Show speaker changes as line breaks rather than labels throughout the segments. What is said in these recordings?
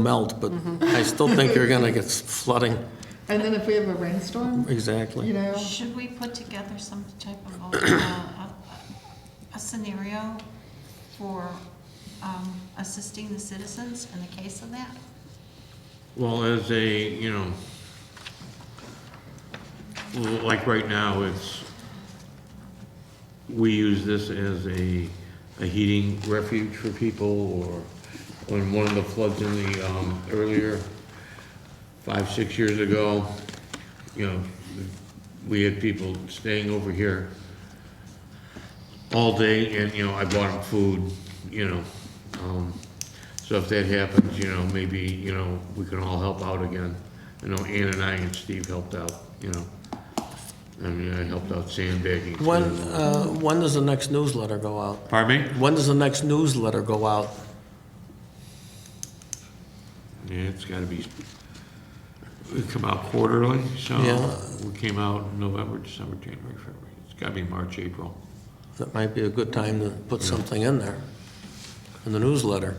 melt, but I still think you're going to get flooding.
And then if we have a rainstorm, you
Exactly.
know,
Should we put together some type of, uh, a a scenario for um, assisting the citizens in the case of that?
Well, as a, you know, l- like right now, it's, we use this as a, a heating refuge for people, or when one of the floods in the, um, earlier, five, six years ago, you know, we had people staying over here all day, and, you know, I bought them food, you know. um, So if that happens, you know, maybe, you know, we can all help out again. I know Ann and I and Steve helped out, you know. I mean, I helped out sandbagging.
When,
too.
uh, when does the next newsletter go out?
Pardon me?
When does the next newsletter go out?
Yeah, it's gotta be, we come out quarterly, so
Yeah.
we came out in November, December, January, February. It's gotta be March, April.
That might be a good time to put something in there, in the newsletter.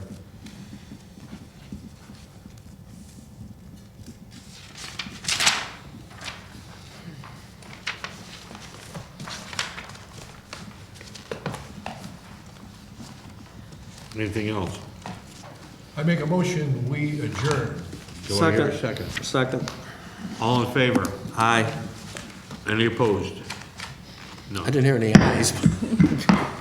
Anything else?
I make a motion, we adjourn.
Do I hear a second?
Second.
All in favor?
Aye.
Any opposed? No.
I didn't hear any ayes.